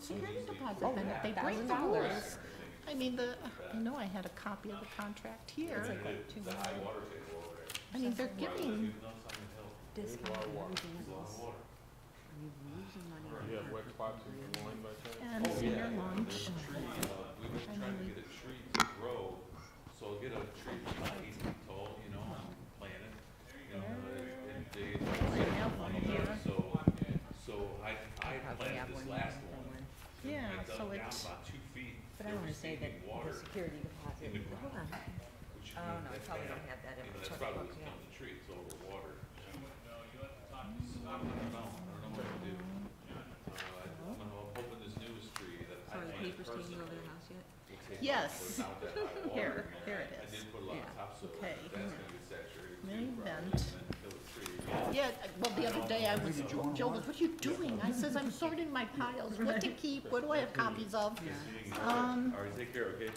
security deposit, then if they break the $1,000. rules. I mean, the, I know I had a copy of the contract here. The high water table over there. I mean, they're giving, discounted moving It's laws. water. You're losing money. You have wet spots in your lawn by chance? and Oh, senior lunch, Tree, uh, we've been trying to get a tree to grow, so get a tree that's not eight feet tall, you know, and plant it. You know, and- and dig it Right now, one twenty years, year. so, so I, I Probably have planted one this more last than one. and one. Yeah, I dug so down it's- About two feet. But I They're wanna say that receiving the water, security in the deposit, hold on, ground. which oh, means no, I that probably that- don't have that in You know, my that's checkbook, probably what's yeah. killing the tree, it's overwatered. I don't know, I don't know what to do. Uh, I- I'm hoping this newest tree that I so are the planted papers taking over personally the house yet? will take off Yes. without that high water. Here, here it I is. did put a lot of Yeah. topsoil, in Okay. it. that's gonna get saturated Main too, probably, and vent. then kill the tree. Yeah. yeah, well, the other day I was, Joe goes, what are you doing? I says, I'm sorting my piles, what to keep, what do I have copies of? Um, All right, take care, okay?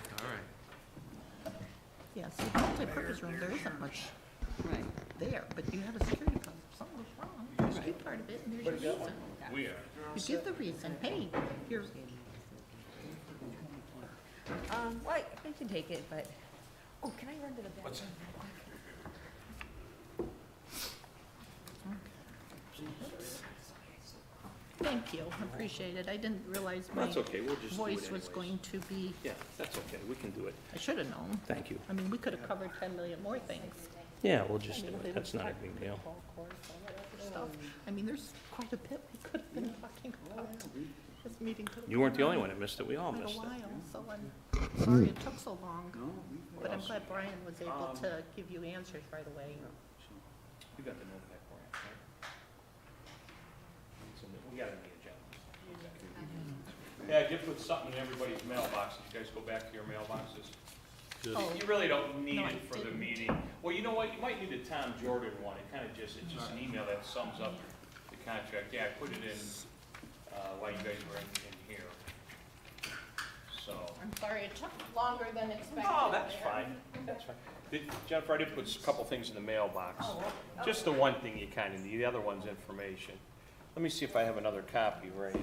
yes, the multi-purpose room, there isn't much Right, there, but you have a security deposit, something was wrong, there's a part of it, and there's your reason. We are. You give the reason, hey, here's, um, well, I I can take it, but, oh, can I run to the bathroom? What's- thank you, I appreciate it, I didn't realize my That's okay, we'll just do it voice anyways. was going to be, Yeah, that's okay, we can do it, I should have known. thank you. I mean, we could have covered ten million more things. Yeah, we'll just I do mean, it, that's not a big deal. Ball courts, all that other stuff. I mean, there's quite a bit we could have been talking about. This meeting could have. You weren't the gone only on one that missed it, we all Quite a missed it. while, so I'm sorry it took so long. But I'm glad Brian was able Um, to give you answers right away. You got the notepad, Brian, right? We gotta be Yeah, I did put something in everybody's mailboxes. You guys go back to your mailboxes. Oh, You really don't need No, I it for the didn't. meeting. Well, you know what? You might need a Tom Jordan one. It kind of just, it's just an email that sums up the contract. Yeah, I put it in, uh, while you guys were in, in here. So. I'm sorry it took longer than expected. Oh, that's there. fine. That's fine. Did- Jennifer, I did put a couple things in the mailbox. Just the one thing you kind of need. The other one's information. Let me see if I have another copy, Ray.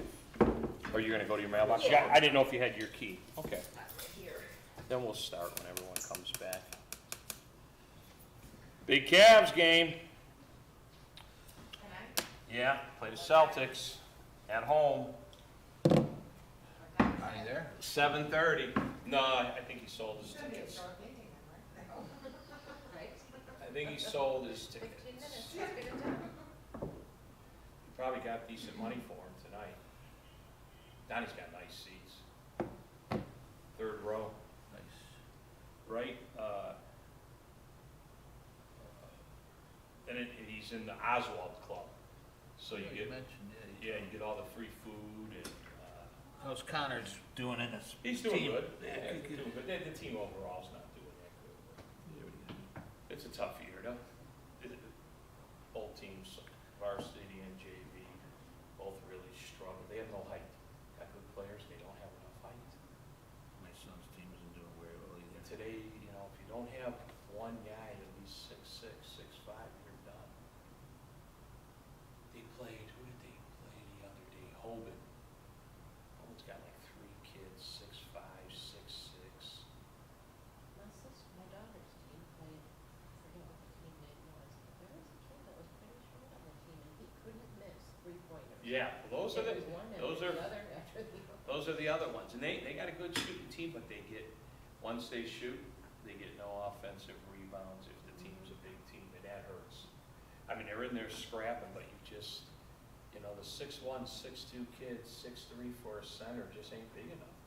Are you going to go to your mailbox? Yeah. I didn't know if you had your key. Okay. Then we'll start when everyone comes back. Big Cavs game. Yeah, play the Celtics at home. Are you there? Seven thirty. No, I I think he sold his tickets. I think he sold his tickets. He Probably got decent money for him tonight. Donnie's got nice seats. Third row. Nice. Right, uh, and it, and he's in the Oswald Club, so you You get, mentioned, yeah, yeah, you get all the free food and, uh, how's Connor's doing in his He's doing team? good. Yeah, Yeah, good, he's doing good. The, the team overall's not doing that good. It's a tough year, though. It- it- Both teams, varsity and JV, both really struggle. They have no height. Got good players, they don't have enough height. My son's team isn't doing very well And either. today, you know, if you don't have one guy at least six, six, six, five, you're done. They played, who did they play the other day? Hoban. Hoban's got like three kids, six, five, six, six. My sister, my daughter's team played, I forget what the team name was, but there was a kid that was pretty short on the team and he couldn't miss three pointers. Yeah, those are the, It was one after those are- the other after the other. those are the other ones, and they, they got a good shooting team, but they get, once they shoot, they get no offensive rebounds if the team's a big team, and that hurts. I mean, they're in there scrapping, but you just, you know, the six-one, six-two kids, six-three for a center just ain't big enough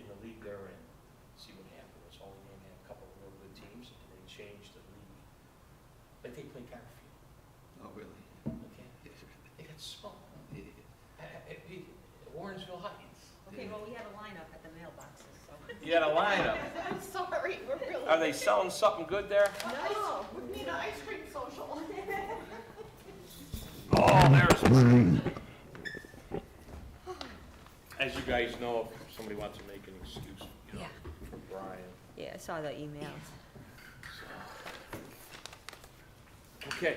in the league they're in. See what happened, was Holy Name had a couple of real good teams, and they changed the league. But they play Garfield, Oh, really? okay? They got small. Warrensville Heights. Okay, well, we had a lineup at the mailboxes, so. You got a lineup. I'm sorry, we're really. Uh, Are they selling something good there? No, we need an ice cream social. Oh, there's. As you guys know, if somebody wants to make an excuse, you know, Yeah, for Brian. yeah, I saw the email. Okay.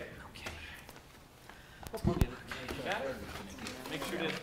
Got it? Make sure that